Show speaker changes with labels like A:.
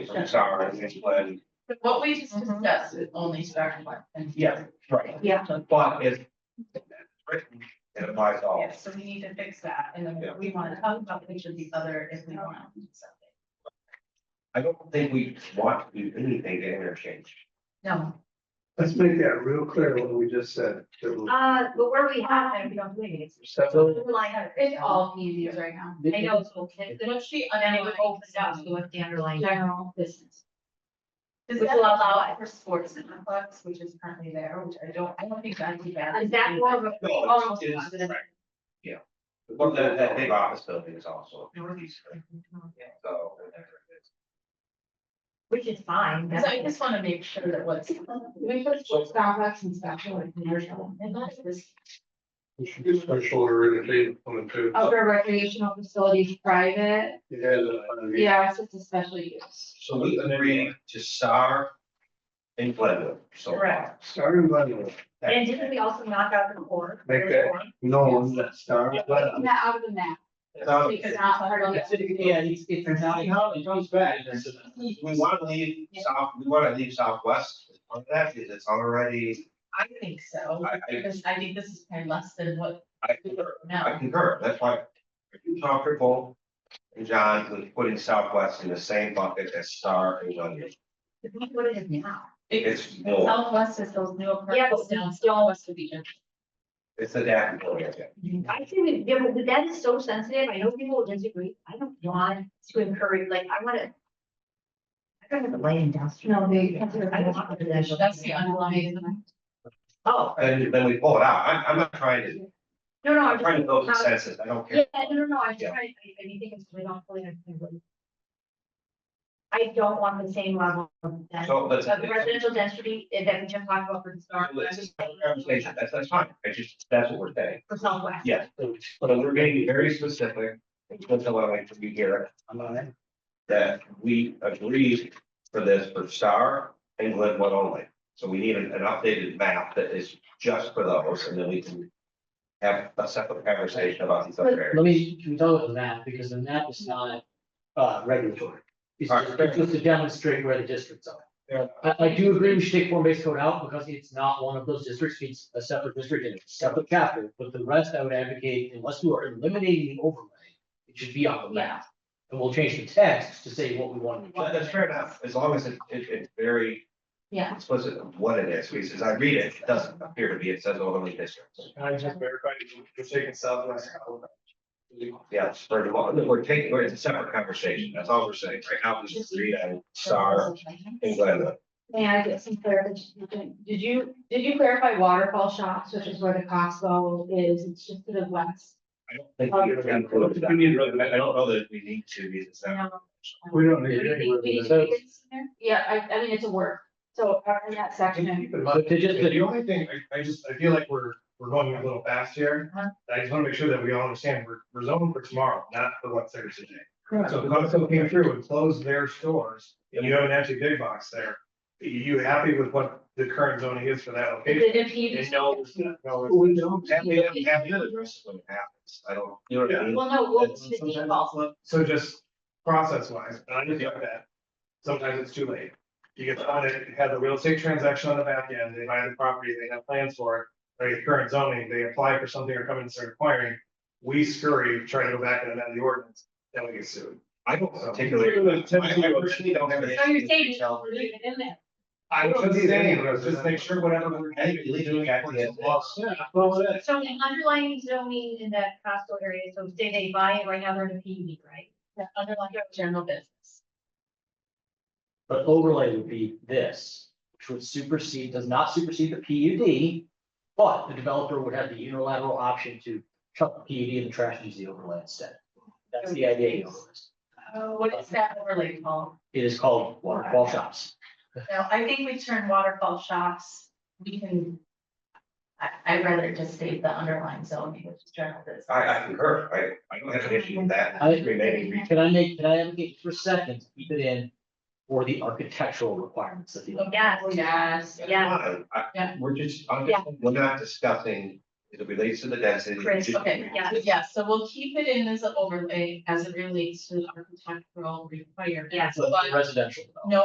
A: I'm sorry, it's when-
B: What we just discussed is only starting one. and-
A: Yeah, right.
C: Mm-hmm. Yeah.
A: But if. written, It applies to all.
B: Yeah, so we need to fix that, and
A: Yeah.
B: then we wanna talk about each of these other if we want. so.
A: I don't think we want to do anything to interchange.
B: No,
D: Let's make that real clear what we just said.
C: Uh, but where we have, them, we don't do anything.
D: So
C: It's all museums right now. I know it's all kids, but
B: what she
C: then it would
B: underlined
C: open
B: was
C: up to
B: that-
C: what the underlying
B: General.
C: business.
B: Does
C: Which
B: that
C: will
B: allow
C: allow-
B: it for sports and athletics, which is currently there, which I don't, I don't think that's bad.
C: Is that more of a?
A: No, it's- it's- right. Yeah. Well, that, that big office building is also. So.
C: Which is fine.
B: So I just wanna make sure that what's.
C: We put Starbucks and special and commercial.
B: And that is-
D: special or entertainment one too.
B: Oh.
C: Outdoor recreational facilities, private,
D: Yeah.
C: yeah, it's just a special use.
A: So we agree to SAR and Glenwood, so.
B: Correct.
D: Starting Glenwood.
C: And didn't we also knock out the core?
D: Make that- No, not starting Glenwood.
C: That out of the map.
A: So
C: Because not part of the-
E: Yeah, he's getting out, he comes back. and says,
A: we want to leave south, we want to leave southwest, as part of that is it's already,
B: I think so,
A: I, I,
B: because I think this is probably less than what
A: I
B: we
A: concur,
B: now.
A: I concur, that's why. Are you comfortable, and John, with putting southwest in the same bucket as Star and Glenwood?
C: What it is now.
A: It's more.
B: Southwest is those new
C: Yeah, but
B: apartments down.
C: still west of the.
A: It's a daffodil, yeah.
C: I think, it- yeah, but that is so sensitive. I know people will disagree. I don't want to encourage, like, I wanna. I don't have a light industrial. I don't want residential.
B: That's the underlying.
C: Oh,
A: Then, then we pull it out, I'm, I'm not trying to,
C: no, no,
A: I'm
C: I'm
A: trying to build
C: just.
A: consensus, I don't
C: Yeah,
A: care.
C: no, no, no, I'm
A: Yeah.
C: just trying, I, I do think it's really not fully understandable. I don't want the same level of that,
A: So let's.
C: of residential density that we just talked about for the star.
A: Let's just have a conversation, that's, that's fine, I just, that's what we're saying,
C: For Southwest.
A: yes, so we're getting very specific, it's what I like to be here. that we agreed for this for Star and Glenwood only. So we need an an updated map that is just for those, and then we can have a separate conversation about these other areas.
E: Let me condone the map, because the map is not uh regulatory. It's just, it's just to demonstrate where the districts are.
A: Yeah.
E: I, I do agree we should take form-based code out, because it's not one of those districts, it's a separate district and a separate chapter, but the rest I would advocate, unless you are eliminating the overlay, it should be on the map. And we'll change the text to say what we want.
A: Well, that's fair enough, as long as it, it, it's very
C: Yeah.
A: explicit of what it is, because as I read it, it doesn't appear to be, it says overlay districts.
D: I just verified, you're taking southwest.
A: Yeah, it's for the, law. we're taking, we're- it's a separate conversation, that's all we're saying, right now, we just agree on Star and Glenwood.
C: May I get some clarification? Did you, did you clarify waterfall shops, which is where the Costco is, it's just to the west?
A: I don't think we're gonna include that. I I don't know that we need to, because it's not-
D: We don't
C: Do
D: need
C: you
D: any.
C: think we need to make it sooner? Yeah, I, I mean, it's a word, so uh, in that section,
E: But to just,
D: The only thing, I, I just, I feel like we're, we're going a little fast here.
B: Uh-huh.
D: I just wanna make sure that we all understand, we're, we're zoned for tomorrow, not for what's there today.
E: Correct.
D: So if Costco came through and closed their stores, and you have an empty big box there, are you happy with what the current zoning is for that
C: is
D: location?
C: it impeding?
D: No, it's not. No, it's-
A: We don't. Have the, have the other address when it happens, I don't, you know what I mean?
C: Well, no, we'll
A: That's-
C: the
A: sometimes
C: default,
D: So just process wise, I understand that. Sometimes it's too late. You get someone that had the real estate transaction on the back end, they buy the property, they have plans for it. They get current zoning, they apply for something or come in and start acquiring. We scurry, try to go back and amend the ordinance, then we get sued.
A: I don't particularly.
D: Really,
A: I
D: typically
A: I
D: what-
A: personally don't have an
C: so you're
A: issue.
C: saying,
A: Tell-
C: we're leaving it in there.
D: I was just saying, let's just make sure whatever we're
A: I think we leave
D: doing
A: it at the
D: actually
A: end.
D: is lost.
C: So the underlying zoning in that Costco area, so say they buy it right now, they're in a PUD, right?
B: The underlying general business.
E: But overlay would be this, which would supersede, does not supersede the PUD. But the developer would have the unilateral option to chuck the PUD and the trash and use the overlay instead. That's the idea. you know.
B: What is that overlay called?
E: It is called waterfall shops.
B: Now, I think we turn waterfall shops, we can. I, I'd rather just state the underlying zoning, which is general business.
A: I, I concur, I, I don't have an issue with that.
E: I agree.
A: Remaining, re-
E: Can I make, can I advocate for a second, to keep it in for the architectural requirements of the.
B: Oh,
C: Yes, yes, yes.
A: Fine. I-
B: Yeah.
A: We're just,
C: Yeah.
A: we're not discussing it relates to the density.
C: Chris,
B: Okay, yeah, yeah, so we'll keep it in as an overlay as it relates to the architectural requirements,
C: Yeah.
E: So
B: but
E: residential. development.
B: no